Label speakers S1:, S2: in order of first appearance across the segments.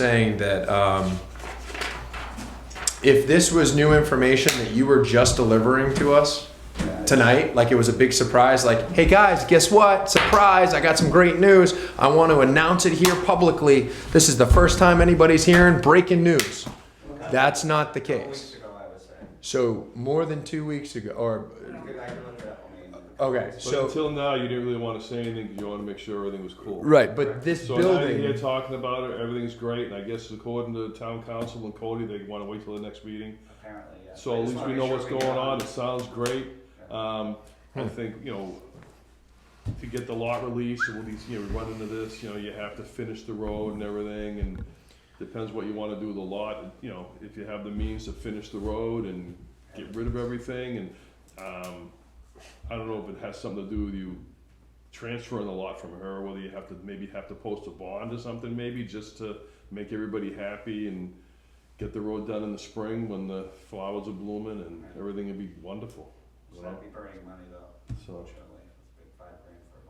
S1: saying that um, if this was new information that you were just delivering to us tonight, like it was a big surprise, like, hey guys, guess what? Surprise, I got some great news. I want to announce it here publicly. This is the first time anybody's hearing breaking news. That's not the
S2: Couple weeks
S1: case.
S2: ago, I would say.
S1: So, more than two weeks ago, or,
S2: Good, I can look it up, I mean,
S1: okay,
S3: But
S1: so,
S3: until now, you didn't really want to say anything because you want to make sure everything was cool.
S1: right, but this
S3: So now you're here
S1: building,
S3: talking about it. Everything's great, and I guess according to town council and Cody, they want to wait till the next meeting.
S2: apparently, yeah.
S3: So
S2: I
S3: at
S2: just
S3: least
S2: wanna
S3: we
S2: make
S3: know
S2: sure
S3: what's
S2: we
S3: going
S2: got
S3: on.
S2: it.
S3: It sounds great. Um, I think you know to get the lot released, and we'll be, you know, we run into this. You know, you have to finish the road and everything, and depends what you want to do with the lot. You know, if you have the means to finish the road and get rid of everything, and um, I don't know if it has something to do with you transferring the lot from her, whether you have to maybe have to post a bond or something, maybe just to make everybody happy and get the road done in the spring when the flowers are blooming and everything would be wonderful.
S2: So that'd be burning money though,
S3: So,
S2: unfortunately, it's a big five grand for a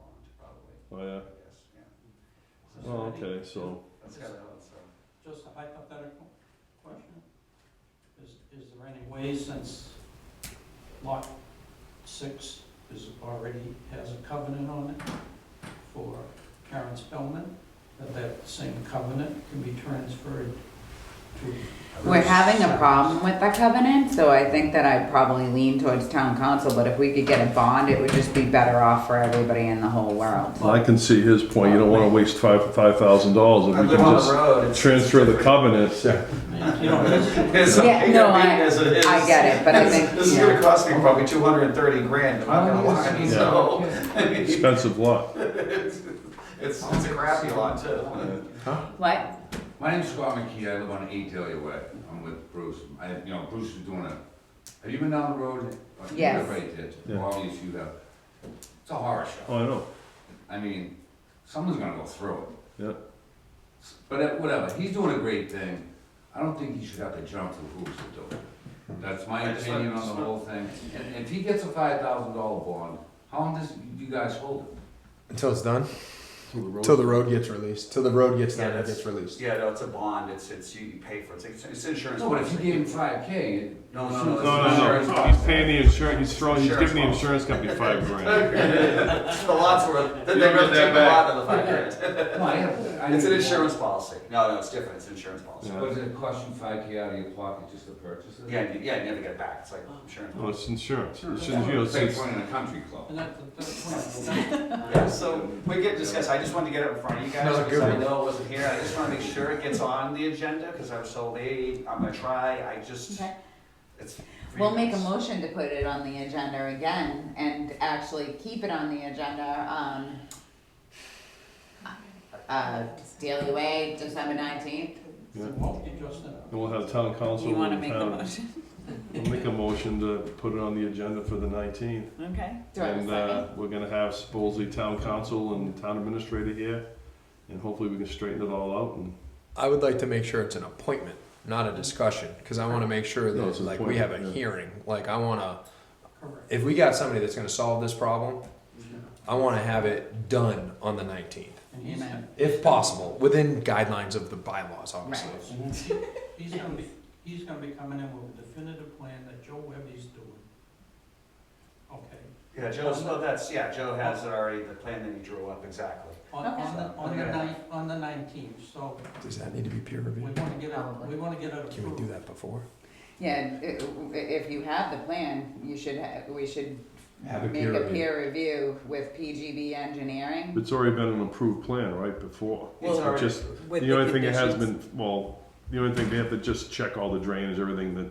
S3: oh yeah.
S2: bond, probably, I guess, yeah.
S3: Oh, okay, so
S2: That's kind of, so,
S4: Just a hypothetical question. Is, is there any way since lot six is already, has a covenant on it for Karen Spellman, that that same covenant can be transferred to?
S5: We're having a problem with the covenant, so I think that I'd probably lean towards town council, but if we could get a bond, it would just be better off for everybody in the whole world.
S3: I can see his point. You don't want to waste five, five thousand dollars
S2: I
S3: if you
S2: live
S3: can
S2: on the
S3: just
S2: road. it's-
S3: transfer the covenant.
S4: You know,
S2: It's
S5: Yeah,
S2: okay to
S5: no,
S2: be
S5: I-
S2: as it is.
S5: I get it, but I
S2: This-
S5: think,
S2: This is
S5: yeah. Oh,
S2: gonna cost me probably two hundred and thirty grand, I'm not gonna lie, so. It's,
S3: Expensive lot.
S2: it's a crappy lot too.
S5: What?
S6: My name's Scott McKee, I live on Eight Dahlia Way, I'm with Bruce, I, you know, Bruce is doing a, have you been down the road? Uh, you
S5: Yes.
S6: Everybody did,
S3: Yeah.
S6: obviously you have, it's a horror
S3: Oh,
S6: show,
S3: I know.
S6: I mean, someone's gonna go through it.
S3: Yeah.
S6: S- But uh, whatever, he's doing a great thing, I don't think he should have to jump through hoops to do it. That's my
S2: I just
S6: opinion
S2: like-
S6: on the whole thing, and if he gets a five thousand dollar bond, how long does you guys hold it?
S1: until it's done,
S3: Till the road-
S1: till the road gets released, till the road gets
S2: Yeah,
S1: done, it
S2: that's-
S1: gets released.
S2: Yeah, no, it's a bond, it's, it's, you you pay for it, it's, it's insurance.
S6: No, but if you
S2: policy.
S6: gave him five K,
S2: No, no,
S3: No, no, no. He's paying the insurance. He's throwing. He's giving the insurance company five grand.
S2: The lot's worth, then
S6: You
S2: they
S6: don't
S2: really
S6: get
S2: take the
S6: that
S2: lot of the five grand.
S6: no, I have. I
S2: It's an
S6: need-
S2: insurance policy. No, no, it's different, it's an insurance policy.
S3: Yeah.
S6: What does it cost you five K out of your pocket just to purchase it?
S2: Yeah, you- yeah, you never get it back, it's like oh, insurance.
S3: No, it's insurance. It
S6: It's
S3: shouldn't- you know, it's-
S6: like
S3: it's-
S6: running a country club.
S4: and that, that's
S2: Yeah, so we get discussed, I just wanted to get it in front of you guys,
S1: Another
S2: because
S1: good
S2: I
S1: one.
S2: know it wasn't here, I just wanna make sure it gets on the agenda, cause I was so late, I'm gonna try, I just,
S5: Okay.
S2: it's. for
S5: We'll
S2: you
S5: make a
S2: guys.
S5: motion to put it on the agenda again and actually keep it on the agenda, um, uh, Daily Way, December nineteenth.
S3: Yeah.
S4: you just,
S3: And we'll have town council. and town- I'll make a motion to put it on the agenda for the nineteenth.
S5: Okay. Do I have a
S3: And, uh,
S5: second?
S3: we're gonna have supposedly town council and town administrator here, and hopefully we can straighten it all out and.
S1: I would like to make sure it's an appointment, not a discussion, because I want to make sure
S3: No,
S1: that
S3: it's an
S1: like we have a
S3: appointment, yeah.
S1: hearing. Like I want to,
S4: correct.
S1: if we got somebody that's going to solve this problem, I want to have it done on the nineteenth,
S4: And he's-
S5: Amen.
S1: if possible, within guidelines of the bylaws, obviously.
S4: He's gonna be, he's gonna be coming in with a definitive plan that Joe Webby's doing. Okay.
S2: Yeah, Joe's, no, that's, yeah, Joe has it already, the plan that he drew up, exactly.
S4: On,
S5: Okay.
S4: on the, on the
S2: Okay.
S4: nine, on the nineteenth, so
S1: Does that need to be peer
S4: we
S1: reviewed?
S4: wanna get it, we wanna get it approved.
S1: Can we do that before?
S5: Yeah, i- i- if you have the plan, you should, ha- we should
S1: Have a
S5: make
S1: peer
S5: a
S1: review.
S5: peer review with PGB Engineering.
S3: It's already been an approved plan, right, before?
S2: It's
S3: It
S2: already,
S3: Just, the only thing that has been, well, the only thing, they have to just check all the drainage, everything that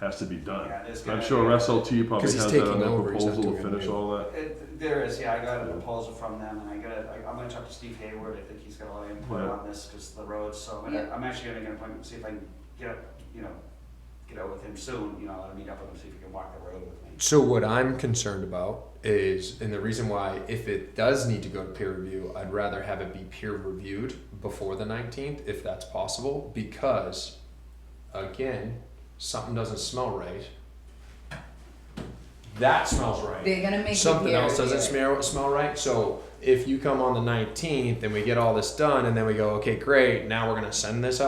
S3: has to be done.
S2: yeah, there's
S3: I'm
S2: gonna
S3: sure
S2: be-
S3: SLT probably
S1: 'Cause he's
S3: has that
S1: taking
S3: on that
S1: over, he's not
S3: proposal to
S1: doing
S3: finish
S1: anything.
S3: all that.
S2: It, there is, yeah, I got a proposal from them, and I gotta, I- I'm gonna talk to Steve Hayward, I think he's got a lot of input
S3: Yeah.
S2: on this, cause the roads, so I'm gonna,
S5: Yeah.
S2: I'm actually gonna make an appointment, see if I can get up, you know, get out with him soon, you know, I'll meet up with him, see if he can walk the road with me.
S1: So what I'm concerned about is, and the reason why, if it does need to go to peer review, I'd rather have it be peer reviewed before the nineteenth, if that's possible, because, again, something doesn't smell right. That smells right.
S5: They're gonna make it
S1: Something
S5: peer
S1: else doesn't smell
S5: reviewed.
S1: smell right. So if you come on the 19th and we get all this done and then we go, okay, great, now we're going to send this out.